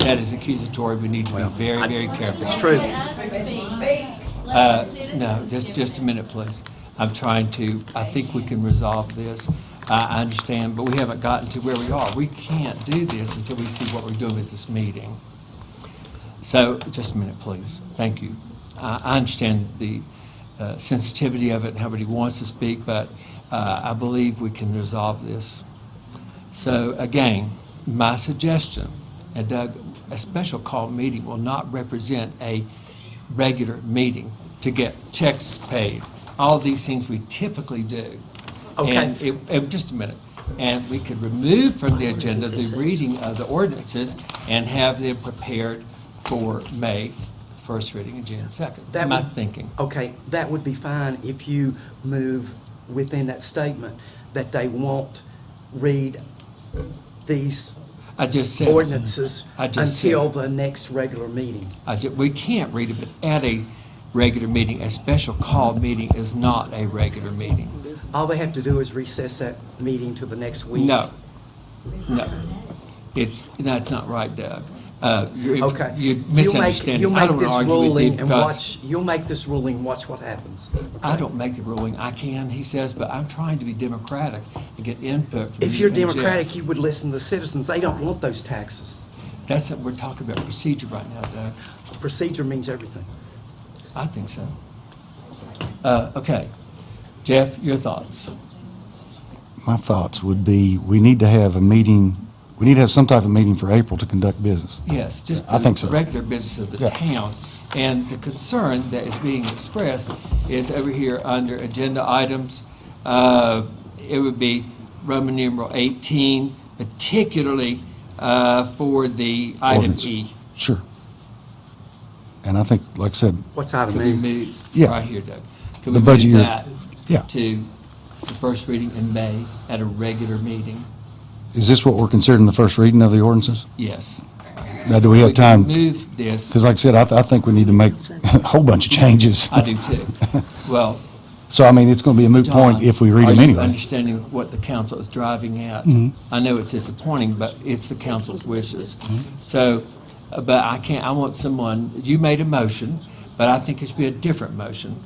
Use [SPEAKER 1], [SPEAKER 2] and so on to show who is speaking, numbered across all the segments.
[SPEAKER 1] that is accusatory, we need to be very, very careful.
[SPEAKER 2] It's true.
[SPEAKER 1] Uh, No, just, just a minute, please. I'm trying to, I think we can resolve this. I, I understand, but we haven't gotten to where we are. We can't do this until we see what we're doing at this meeting. So, just a minute, please. Thank you. I, I understand the uh, sensitivity of it and how everybody wants to speak, but uh, I believe we can resolve this. So again, my suggestion, and Doug, a special call meeting will not represent a regular meeting to get checks paid, all these things we typically do.
[SPEAKER 2] Okay.
[SPEAKER 1] And it, it- just a minute, and we could remove from the agenda the reading of the ordinances and have them prepared for May, first reading and June second,
[SPEAKER 2] That
[SPEAKER 1] my
[SPEAKER 2] would-
[SPEAKER 1] thinking.
[SPEAKER 2] Okay, that would be fine if you move within that statement that they won't read these
[SPEAKER 1] I just said.
[SPEAKER 2] ordinances
[SPEAKER 1] I just said-
[SPEAKER 2] until the next regular meeting.
[SPEAKER 1] I ju- we can't read it, but at a regular meeting, a special call meeting is not a regular meeting.
[SPEAKER 2] All they have to do is recess that meeting to the next week.
[SPEAKER 1] No, no. It's, that's not right, Doug. Uh, you're-
[SPEAKER 2] Okay.
[SPEAKER 1] You're
[SPEAKER 2] You'll make-
[SPEAKER 1] misunderstanding. I don't want to argue with you
[SPEAKER 2] You'll make this ruling and
[SPEAKER 1] because Mm,
[SPEAKER 2] watch, you'll make this ruling, watch what happens.
[SPEAKER 1] I don't make the ruling. I can, he says, but I'm trying to be democratic and get input from you.
[SPEAKER 2] If you're
[SPEAKER 1] and Jeff.
[SPEAKER 2] democratic, you would listen to citizens. They don't want those taxes.
[SPEAKER 1] That's, what we're talking about procedure right now, Doug.
[SPEAKER 2] Procedure means everything.
[SPEAKER 1] I think so. Uh, okay. Jeff, your thoughts?
[SPEAKER 3] My thoughts would be, we need to have a meeting, we need to have some type of meeting for April to conduct business.
[SPEAKER 1] Yes, just
[SPEAKER 3] I think
[SPEAKER 1] the
[SPEAKER 3] so.
[SPEAKER 1] regular business of the
[SPEAKER 3] Yeah.
[SPEAKER 1] town. And the concern that is being expressed is over here under agenda items. uh, It would be Roman numeral 18, particularly uh, for the item
[SPEAKER 3] Ordinance.
[SPEAKER 1] E.
[SPEAKER 3] Sure. And I think, like I said,
[SPEAKER 2] What's out of
[SPEAKER 1] Could we
[SPEAKER 2] me?
[SPEAKER 1] move,
[SPEAKER 3] Yeah.
[SPEAKER 1] right here, Doug. Could
[SPEAKER 3] The
[SPEAKER 1] we
[SPEAKER 3] budget
[SPEAKER 1] move
[SPEAKER 3] year.
[SPEAKER 1] that
[SPEAKER 3] Yeah.
[SPEAKER 1] to the first reading in May at a regular meeting?
[SPEAKER 3] is this what we're considering the first reading of the ordinances?
[SPEAKER 1] Yes.
[SPEAKER 3] Now, do we have
[SPEAKER 1] can
[SPEAKER 3] time?
[SPEAKER 1] Move this.
[SPEAKER 3] Because like I said, I, th- I think we need to make a whole bunch of changes.
[SPEAKER 1] I do too. Well,
[SPEAKER 3] So I mean, it's going to be a moot point
[SPEAKER 1] John,
[SPEAKER 3] if we read them
[SPEAKER 1] are you
[SPEAKER 3] anyway.
[SPEAKER 1] understanding what the council is driving at?
[SPEAKER 3] Mm-hmm.
[SPEAKER 1] I know it's disappointing, but it's the council's wishes.
[SPEAKER 3] Mm-hmm.
[SPEAKER 1] So, uh, but I can't, I want someone, you made a motion, but I think it should be a different motion,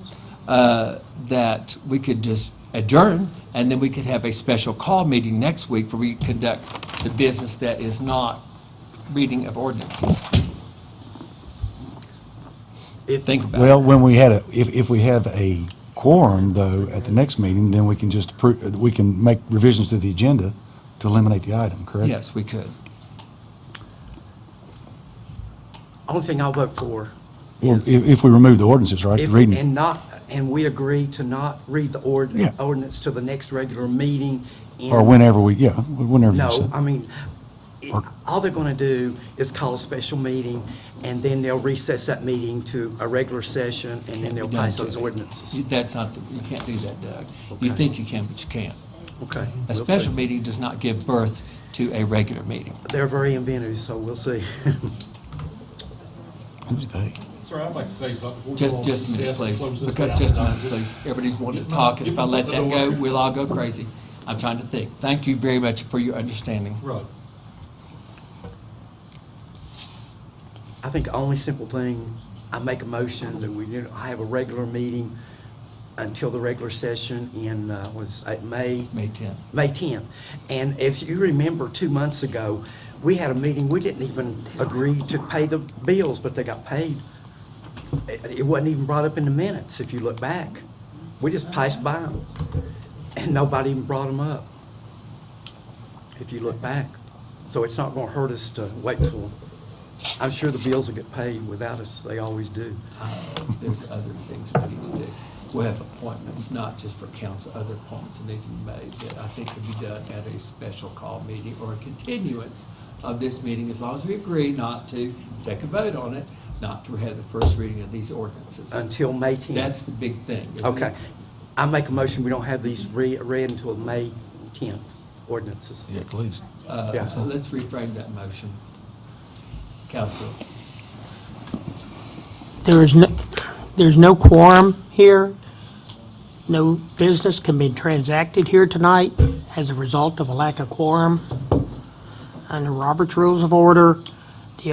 [SPEAKER 1] uh, that we could just adjourn, and then we could have a special call meeting next week where we conduct the business that is not reading of ordinances.
[SPEAKER 2] If-
[SPEAKER 1] Think about it.
[SPEAKER 3] Well, when we had a, if, if we have a quorum though, at the next meeting, then we can just approve, we can make revisions to the agenda to eliminate the item, correct?
[SPEAKER 1] Yes, we could.
[SPEAKER 2] Only thing I'll vote for
[SPEAKER 3] Well,
[SPEAKER 2] is.
[SPEAKER 3] if, if we remove the ordinances, right, the
[SPEAKER 2] If-
[SPEAKER 3] reading.
[SPEAKER 2] And not, and we agree to not read the ord-
[SPEAKER 3] Yeah.
[SPEAKER 2] ordinance to the next regular meeting. in-
[SPEAKER 3] Or whenever we, yeah, whenever you
[SPEAKER 2] No,
[SPEAKER 3] said.
[SPEAKER 2] I mean, it-
[SPEAKER 3] Or-
[SPEAKER 2] all they're going to do is call a special meeting, and then they'll recess that meeting to a regular session, and then they'll
[SPEAKER 1] Don't
[SPEAKER 2] pass
[SPEAKER 1] do
[SPEAKER 2] those
[SPEAKER 1] it.
[SPEAKER 2] ordinances.
[SPEAKER 1] You- That's not, the- you can't do that, Doug. You think you can, but you can't.
[SPEAKER 2] Okay.
[SPEAKER 1] A
[SPEAKER 2] we'll see.
[SPEAKER 1] special meeting does not give birth to a regular meeting.
[SPEAKER 2] They're very inventive, so we'll see.
[SPEAKER 3] Who's they?
[SPEAKER 4] Sir, I'd like to say something. before we go
[SPEAKER 1] Just,
[SPEAKER 4] on
[SPEAKER 1] just a minute,
[SPEAKER 4] recess and close
[SPEAKER 1] please.
[SPEAKER 4] this
[SPEAKER 1] Because
[SPEAKER 4] down.
[SPEAKER 1] just a minute, please. Everybody's wanting to talk, and if I let that go, we'll all go crazy. I'm trying to think. Thank you very much for your understanding.
[SPEAKER 4] Right.
[SPEAKER 2] I think the only simple thing, I make a motion that we, do- I have a regular meeting until the regular session in, uh, was it May?
[SPEAKER 1] May 10.
[SPEAKER 2] May 10th. And if you remember, two months ago, we had a meeting, we didn't even agree to pay the bills, but they got paid. It it wasn't even brought up in the minutes, if you look back. We just passed by them, and nobody even brought them up, if you look back. So it's not going to hurt us to wait till, I'm sure the bills will get paid without us, they always do.
[SPEAKER 1] There's other things we need to do. We have appointments, not just for council, other appointments that need to be made that I think could be done at a special call meeting or a continuance of this meeting, as long as we agree not to take a vote on it, not to have the first reading of these ordinances.
[SPEAKER 2] Until May 10th.
[SPEAKER 1] That's the big thing, isn't it?
[SPEAKER 2] Okay. I make a motion, we don't have these re- read until May 10th ordinances.
[SPEAKER 3] Yeah, please.
[SPEAKER 1] Uh,
[SPEAKER 2] Yeah.
[SPEAKER 1] Let's reframe that motion. Council,
[SPEAKER 5] There is no, there's no quorum here. No business can be transacted here tonight as a result of a lack of quorum. Under Robert's Rules of Order,